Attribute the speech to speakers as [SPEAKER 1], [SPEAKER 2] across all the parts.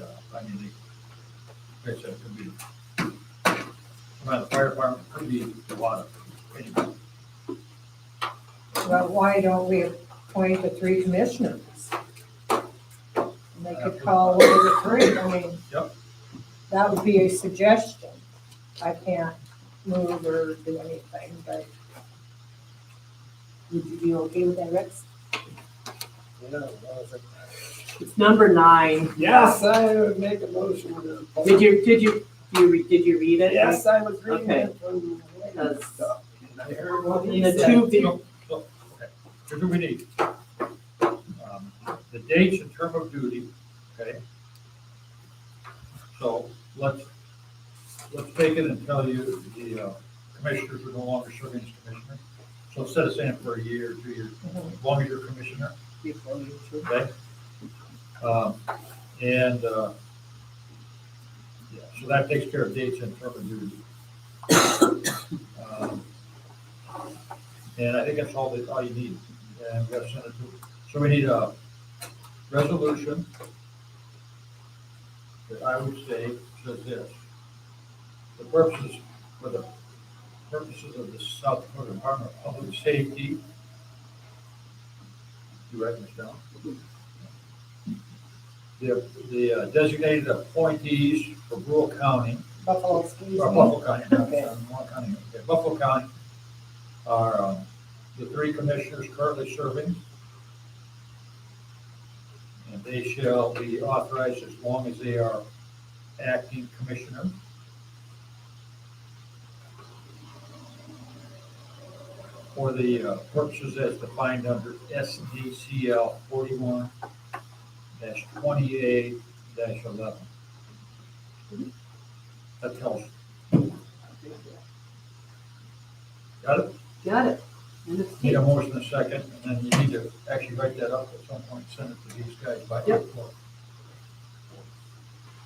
[SPEAKER 1] uh, I mean, they, like I said, it could be, by the fire department, could be the water. anybody.
[SPEAKER 2] Well, why don't we appoint the three commissioners? And they could call one of the three, I mean.
[SPEAKER 1] Yep.
[SPEAKER 2] That would be a suggestion. I can't move or do anything, but
[SPEAKER 3] Would you be okay with that, Rex?
[SPEAKER 4] It's number nine.
[SPEAKER 5] Yes, I would make a motion to.
[SPEAKER 4] Did you, did you, you, re- did you read it?
[SPEAKER 5] Yes, I was reading
[SPEAKER 4] Okay.
[SPEAKER 5] it from.
[SPEAKER 4] Because
[SPEAKER 5] And I heard what he
[SPEAKER 4] the
[SPEAKER 5] said.
[SPEAKER 4] two, vi-
[SPEAKER 1] Here's what we need. Um, The dates and term of duty, okay? So let's, let's take it and tell you the uh, commissioners are no longer serving as commissioner. So instead of saying for a year, two years, as long as you're commissioner, okay? Um, And, uh, yeah, so that takes care of dates and term of duty. Um, and I think that's all that, all you need. And we have Senate, so we need a resolution that I would say says this. The purposes, for the purposes of the South Dakota Department of Public Safety. You write this down. The, the uh, designated appointees for rural county
[SPEAKER 2] Buffalo, excuse
[SPEAKER 1] or
[SPEAKER 2] me.
[SPEAKER 1] Buffalo County, not- not Warren County, okay, Buffalo County are um, the three commissioners currently serving. And they shall be authorized as long as they are acting commissioner. For the uh, purposes as defined under SDCL forty-one twenty-eight eleven. That tells Got it?
[SPEAKER 4] got it. And it's-
[SPEAKER 1] Need a motion in a second, and then you need to actually write that up at some point, send it to these guys by
[SPEAKER 4] Yep.
[SPEAKER 1] April.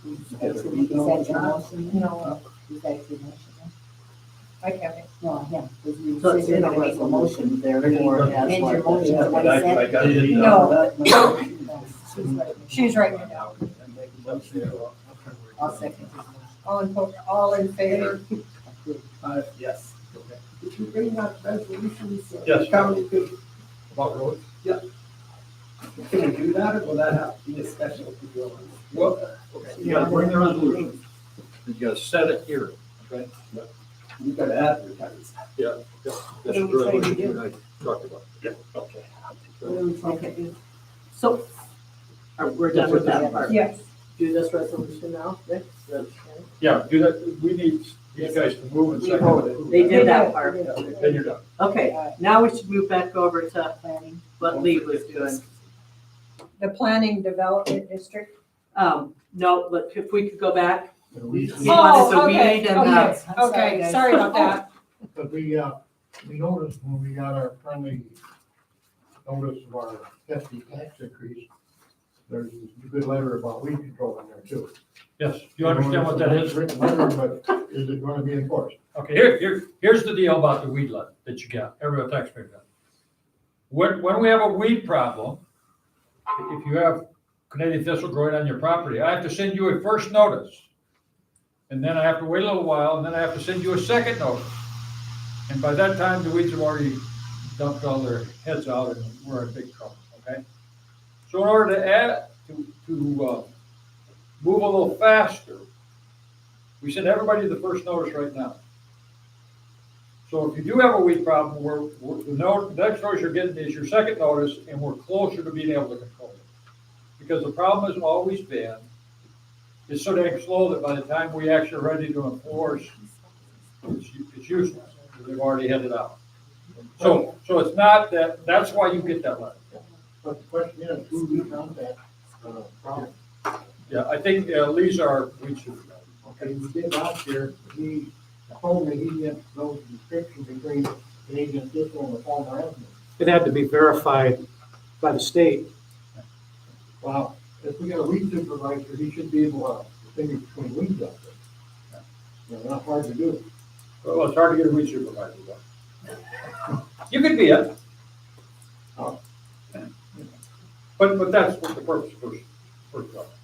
[SPEAKER 3] Is that your motion?
[SPEAKER 2] No,
[SPEAKER 3] Is that your motion?
[SPEAKER 2] I can't.
[SPEAKER 3] No, yeah. because you
[SPEAKER 4] So it's in
[SPEAKER 3] said you're
[SPEAKER 4] a
[SPEAKER 3] gonna make a motion,
[SPEAKER 1] therefore,
[SPEAKER 3] Amend
[SPEAKER 1] that's
[SPEAKER 3] your
[SPEAKER 5] what-
[SPEAKER 3] motion, to what
[SPEAKER 1] I-
[SPEAKER 3] is
[SPEAKER 1] I
[SPEAKER 3] that?
[SPEAKER 1] got it in, uh,
[SPEAKER 2] No.
[SPEAKER 3] No.
[SPEAKER 2] She's writing it down.
[SPEAKER 1] uh, And make a motion.
[SPEAKER 3] I'll second his motion.
[SPEAKER 2] All in, fo- all in favor?
[SPEAKER 5] Uh, Yes.
[SPEAKER 1] Okay.
[SPEAKER 5] Did you bring that resolution? so the
[SPEAKER 1] Yes.
[SPEAKER 5] County could,
[SPEAKER 1] About roads?
[SPEAKER 5] can we do that or will that have to be a special? deal?
[SPEAKER 1] Well, okay, you gotta bring the resolution, you gotta set it here, okay?
[SPEAKER 5] You gotta advertise.
[SPEAKER 1] That's the resolution that I talked about. Yeah, okay.
[SPEAKER 4] Okay. So, are- we're done with that part.
[SPEAKER 2] Yes.
[SPEAKER 4] Do this resolution now, Rick? Okay.
[SPEAKER 1] Yeah, do that, we need these guys to move and
[SPEAKER 5] We
[SPEAKER 1] second.
[SPEAKER 5] voted.
[SPEAKER 1] approve
[SPEAKER 4] They
[SPEAKER 1] that.
[SPEAKER 4] did that part.
[SPEAKER 1] Then you're done.
[SPEAKER 4] Okay, now we should move back over to
[SPEAKER 3] Planning.
[SPEAKER 4] what Lee was doing.
[SPEAKER 2] The Planning Development District.
[SPEAKER 4] Um, no, look, if we could go back,
[SPEAKER 6] But
[SPEAKER 4] Yeah,
[SPEAKER 2] Oh.
[SPEAKER 4] so we need to have-
[SPEAKER 2] okay, Okay, sorry about that.
[SPEAKER 6] we, uh, we noticed when we got our friendly notice of our hefty tax increase, there's a good letter about weed control in there too.
[SPEAKER 1] Yes, you understand what that is?
[SPEAKER 6] Written letter, but is it gonna be enforced?
[SPEAKER 1] Okay, here, here, here's the deal about the weed lot that you got, every taxpayer got. When, when we have a weed problem, if you have Canadian thistle growing on your property, I have to send you a first notice. And then I have to wait a little while, and then I have to send you a second notice. And by that time, the weeds have already dumped all their heads out and we're in big trouble, okay? So in order to add, to, to, uh, move a little faster, we send everybody the first notice right now. So if you do have a weed problem, we're, we're, the no- next notice you're getting is your second notice, and we're closer to being able to control it. Because the problem has always been, it's so dang slow that by the time we actually are ready to enforce, it's, u- it's useless, because they've already headed out. So, so it's not that, that's why you get that letter.
[SPEAKER 6] But the question is, who do we contact? uh, from?
[SPEAKER 1] Yeah, I think uh, Lee's our weed supervisor.
[SPEAKER 6] Okay, we did last year, he told me he didn't know the description between Canadian thistle and the Palmer Avenue.
[SPEAKER 7] It had to be verified by the state.
[SPEAKER 6] Well, if we got a weed supervisor, he should be able to distinguish between weeds out there. You know, not hard to do.
[SPEAKER 1] Well, it's hard to get a weed supervisor, though. You could be it. But, but that's what the purpose of first, first off.